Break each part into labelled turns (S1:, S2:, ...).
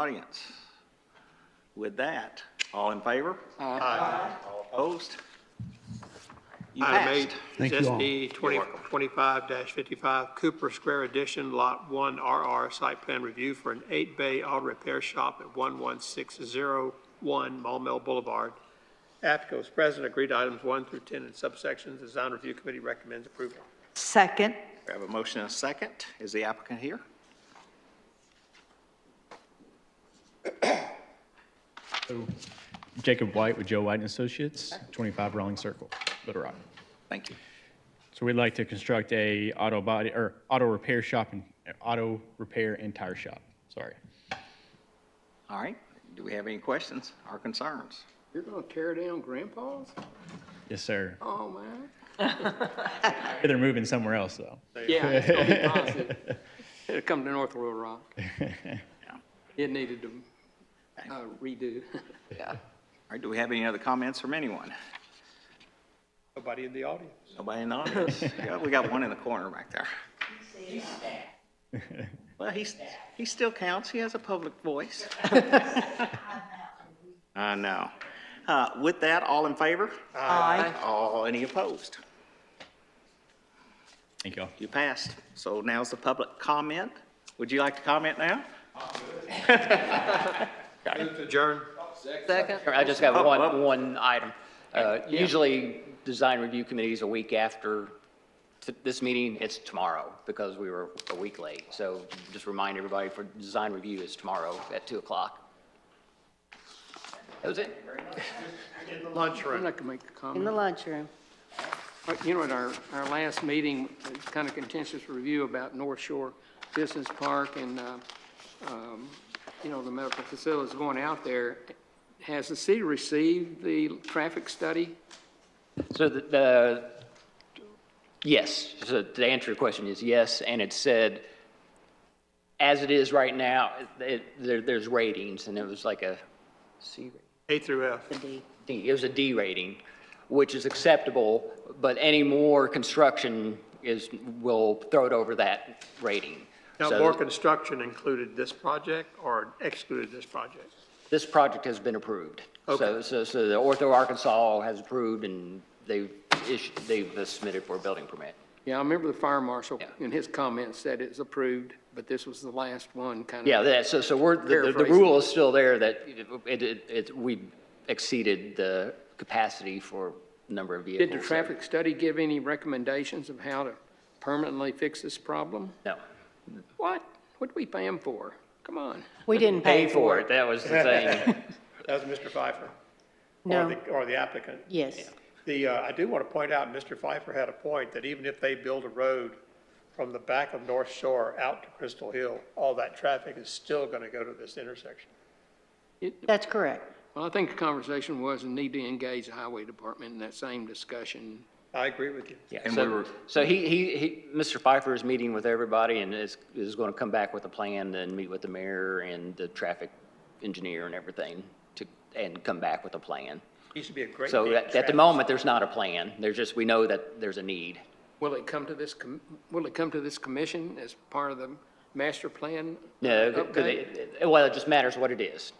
S1: Audience. With that, all in favor? All opposed? You
S2: Item eight
S1: passed.
S2: is
S3: Thank you all.
S2: SD 2025-55 Cooper Square Edition, Lot 1 RR Site Plan Review for an eight-bay auto repair shop at 11601 Maumelle Boulevard. Applicant was present, agreed to items 1 through 10 in subsections. Design Review Committee recommends approval.
S4: Second,
S1: We have a motion and a second. Is the applicant here?
S5: Jacob White with Joe White and Associates, 25 Rawlings Circle, Little Rock.
S1: Thank you.
S5: So we'd like to construct a auto body, or auto repair shop and, auto repair and tire shop, sorry.
S1: All right. Do we have any questions or concerns?
S6: You're gonna tear down Grandpa's?
S5: Yes, sir.
S6: Oh, man.
S5: They're moving somewhere else, though.
S6: Yeah, it's gonna be positive. It'll come to North Little Rock. It needed to uh, redo.
S1: All right, do we have any other comments from anyone?
S2: Nobody in the audience?
S1: Nobody in the audience? Yeah, we got one in the corner back there. Well, he's, he still counts. He has a public voice. I know. Uh, with that, all in favor?
S4: aye.
S1: All, any opposed?
S5: Thank y'all.
S1: You passed. So now's the public comment. Would you like to comment now?
S2: Adjourn.
S7: Second. I just got
S1: Oh, oh.
S7: one, one item. Uh, Usually, design review committees a week after t- this meeting, it's tomorrow, because we were a week late. So just remind everybody, for design review is tomorrow at 2 o'clock. That was it.
S6: I'm not gonna make a
S8: In the
S6: comment.
S8: lunchroom.
S6: You know, at our, our last meeting, it was kind of contentious review about North Shore Business Park and, uh, um, you know, the medical facilities going out there. Has the city received the traffic study?
S7: So the- the, yes, so to answer your question is yes, and it said, as it is right now, it, there, there's ratings, and it was like a C rating.
S2: A through F.
S7: D, it was a D rating, which is acceptable, but any more construction is, will throw it over that rating.
S2: Now,
S7: So
S2: more construction included this project or excluded this project?
S7: This project has been approved. So,
S2: Okay.
S7: so, so the Ortho Arkansas has approved and they've issued, they've submitted for a building permit.
S6: Yeah, I remember the fire marshal
S7: Yeah.
S6: in his comments said it's approved, but this was the last one, kind of.
S7: Yeah, that, so, so we're, the- the, the
S6: Paraphrasing.
S7: rule is still there that it, it, it, we exceeded the capacity for number of vehicles.
S6: Did the
S7: so-
S6: traffic study give any recommendations of how to permanently fix this problem?
S7: No.
S6: What? What'd we pay them for? Come on.
S8: We didn't
S7: Pay for it, that was the thing.
S2: That was Mr. Pfeiffer. Or
S8: No,
S2: the, or the applicant.
S8: yes.
S2: The, uh, I do want to point out, Mr. Pfeiffer had a point, that even if they build a road from the back of North Shore out to Crystal Hill, all that traffic is still going to go to this intersection.
S8: That's correct.
S6: Well, I think the conversation was we need to engage the highway department in that same discussion.
S2: I agree with you.
S7: Yeah,
S1: And we
S7: so,
S1: were-
S7: so he, he, he, Mr. Pfeiffer is meeting with everybody and is, is going to come back with a plan and meet with the mayor and the traffic engineer and everything to, and come back with a plan.
S2: Used to be a great.
S7: So
S2: big
S7: at, at the
S2: traffic-
S7: moment, there's not a plan. There's just, we know that there's a need.
S6: Will it come to this, com- will it come to this commission as part of the master plan?
S7: No,
S6: Okay.
S7: 'cause it- it- well, it just matters what it is.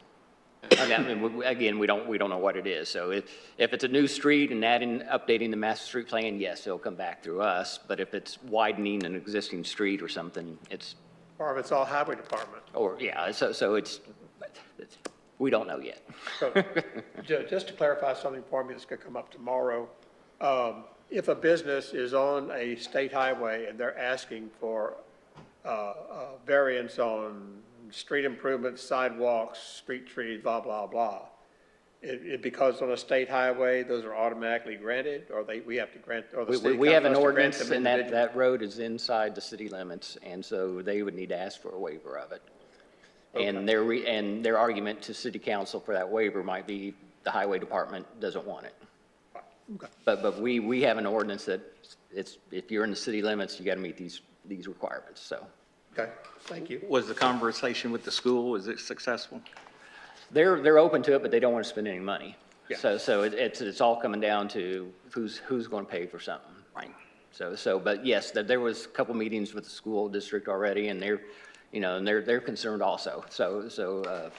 S7: I mean, I mean, we- again, we don't, we don't know what it is. So if, if it's a new street and adding, updating the master street plan, yes, it'll come back through us. But if it's widening an existing street or something, it's,
S2: Or if it's all highway department.
S7: Or, yeah, so, so it's, we don't know yet.
S2: So, ju- just to clarify something for me that's going to come up tomorrow, um, if a business is on a state highway and they're asking for, uh, uh, variance on street improvements, sidewalks, street trees, blah, blah, blah, it, it, because on a state highway, those are automatically granted, or they, we have to grant, or the
S7: We,
S2: state
S7: we
S2: comes
S7: we have
S2: to
S7: an
S2: us to grant
S7: ordinance
S2: them
S7: and that,
S2: individually?
S7: that road is inside the city limits, and so they would need to ask for a waiver of it. And their, re- and their argument to city council for that waiver might be the highway department doesn't want it. But, but we, we have an ordinance that it's, if you're in the city limits, you got to meet these, these requirements, so.
S2: Okay, thank you.
S1: Was the conversation with the school, was it successful?
S7: They're, they're open to it, but they don't want to spend any money. So, so it- it's, it's all coming down to who's, who's going to pay for something. Right. So, so, but yes, there, there was a couple meetings with the school district already, and they're, you know, and they're, they're concerned also. So, so, uh,